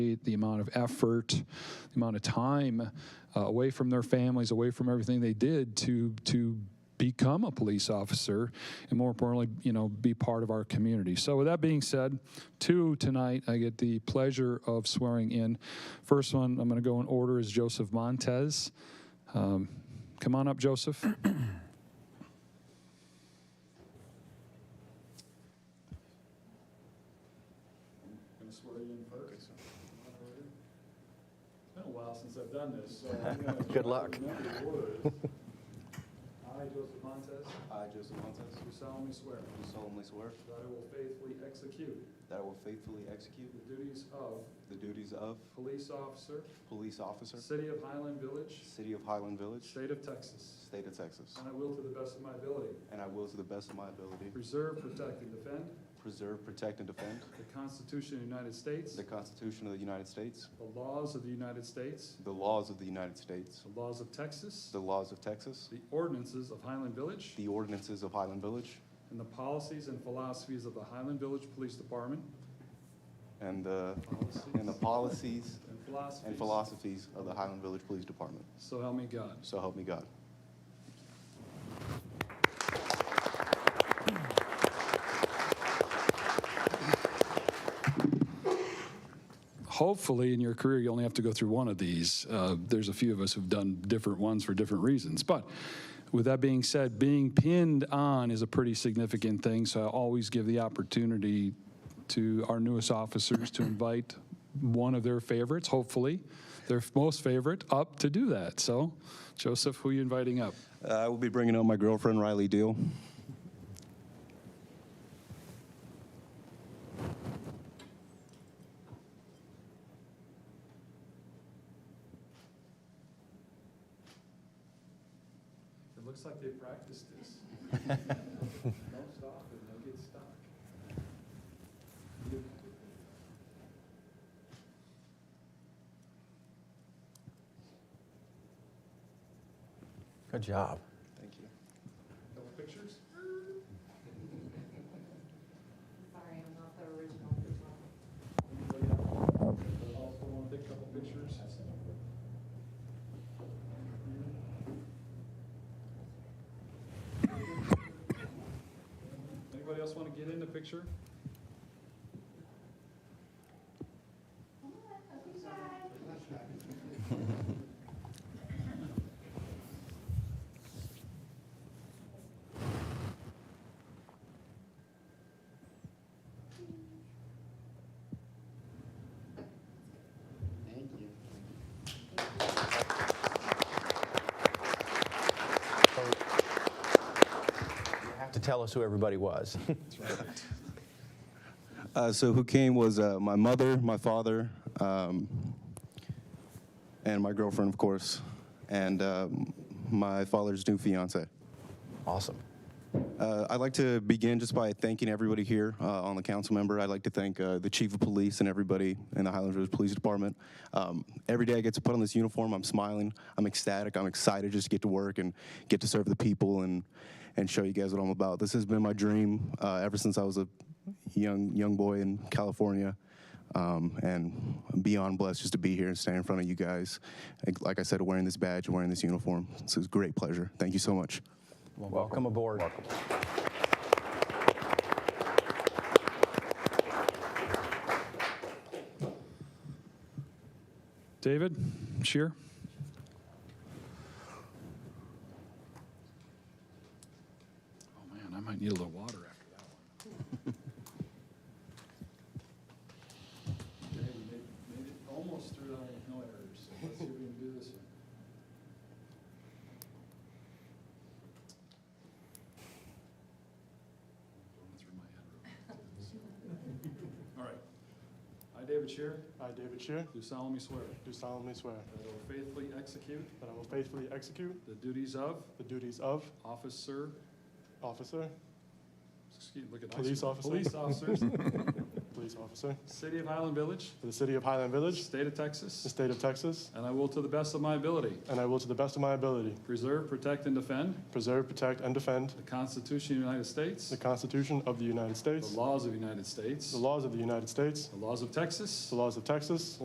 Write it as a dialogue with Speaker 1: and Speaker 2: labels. Speaker 1: the amount of effort, the amount of time uh, away from their families, away from everything they did to to become a police officer, and more importantly, you know, be part of our community. So, with that being said, two tonight, I get the pleasure of swearing in. First one, I'm going to go in order is Joseph Montez. Um, come on up, Joseph. Gonna swear you in first. It's been a while since I've done this, so. I'm gonna try
Speaker 2: Good
Speaker 1: to
Speaker 2: luck.
Speaker 1: remember the words. I, Joseph Montez,
Speaker 2: I, Joseph Montes,
Speaker 1: do solemnly swear
Speaker 2: do solemnly swear
Speaker 1: that I will faithfully execute
Speaker 2: that I will faithfully execute
Speaker 1: the duties of
Speaker 2: the duties of
Speaker 1: police officer,
Speaker 2: police officer,
Speaker 1: City of Highland Village,
Speaker 2: City of Highland Village,
Speaker 1: State of Texas,
Speaker 2: State of Texas,
Speaker 1: and I will to the best of my ability
Speaker 2: and I will, to the best of my ability,
Speaker 1: preserve, protect, and defend
Speaker 2: preserve, protect, and defend
Speaker 1: the Constitution of the United States,
Speaker 2: the Constitution of the United States,
Speaker 1: the laws of the United States,
Speaker 2: the laws of the United States,
Speaker 1: the laws of Texas,
Speaker 2: the laws of Texas,
Speaker 1: the ordinances of Highland Village,
Speaker 2: the ordinances of Highland Village,
Speaker 1: and the policies and philosophies of the Highland Village Police Department.
Speaker 2: and the, and the policies
Speaker 1: And philosophies.
Speaker 2: and philosophies of the Highland Village Police Department.
Speaker 1: So help me God.
Speaker 2: So help me God.
Speaker 1: Hopefully, in your career, you only have to go through one of these. Uh, There's a few of us who've done different ones for different reasons. But with that being said, being pinned on is a pretty significant thing, so I always give the opportunity to our newest officers to invite one of their favorites, hopefully, their most favorite, up to do that. So, Joseph, who are you inviting up?
Speaker 2: Uh, I will be bringing up my girlfriend, Riley Deal.
Speaker 1: It looks like they practiced this. Don't stop and they'll get stuck.
Speaker 3: Good job.
Speaker 2: Thank you.
Speaker 1: Couple pictures?
Speaker 4: Sorry, I'm not the original original.
Speaker 1: Anybody else? Also want to take a couple pictures? Anybody else want to get in the picture?
Speaker 3: You have to tell us who everybody was.
Speaker 2: Uh, so who came was uh, my mother, my father, um, and my girlfriend, of course, and um, my father's new fiance.
Speaker 3: Awesome.
Speaker 2: Uh, I'd like to begin just by thanking everybody here uh, on the council member. I'd like to thank uh, the chief of police and everybody in the Highland Village Police Department. Um, every day I get to put on this uniform, I'm smiling, I'm ecstatic, I'm excited just to get to work and get to serve the people and and show you guys what I'm about. This has been my dream uh, ever since I was a young young boy in California. Um, and I'm beyond blessed just to be here and stand in front of you guys. Like- Like I said, wearing this badge, wearing this uniform. This is a great pleasure. Thank you so much.
Speaker 3: Welcome, aboard.
Speaker 1: David, Shear? Oh, man, I might need a little water after that one. Okay, we made made it almost through that one with no errors, so let's see if we can do this one. Going through my head real quick. All right. I, David Shear,
Speaker 5: I, David Shear,
Speaker 1: do solemnly swear.
Speaker 5: do solemnly swear
Speaker 1: That I will faithfully execute
Speaker 5: that I will faithfully execute
Speaker 1: the duties of
Speaker 5: the duties of
Speaker 1: officer,
Speaker 5: officer,
Speaker 1: excuse, look at.
Speaker 5: Police officer.
Speaker 1: Police officers,
Speaker 5: police officer,
Speaker 1: City of Highland Village,
Speaker 5: for the city of Highland Village,
Speaker 1: State of
Speaker 5: the
Speaker 1: Texas,
Speaker 5: state of Texas,
Speaker 1: and I will to the best of my ability
Speaker 5: and I will, to the best of my ability,
Speaker 1: preserve, protect, and defend
Speaker 5: preserve, protect, and defend
Speaker 1: the Constitution of the United States,
Speaker 5: the Constitution of the
Speaker 1: the
Speaker 5: United States,
Speaker 1: laws of the United States,
Speaker 5: the laws of the United States,
Speaker 1: the laws of Texas,
Speaker 5: the laws of Texas,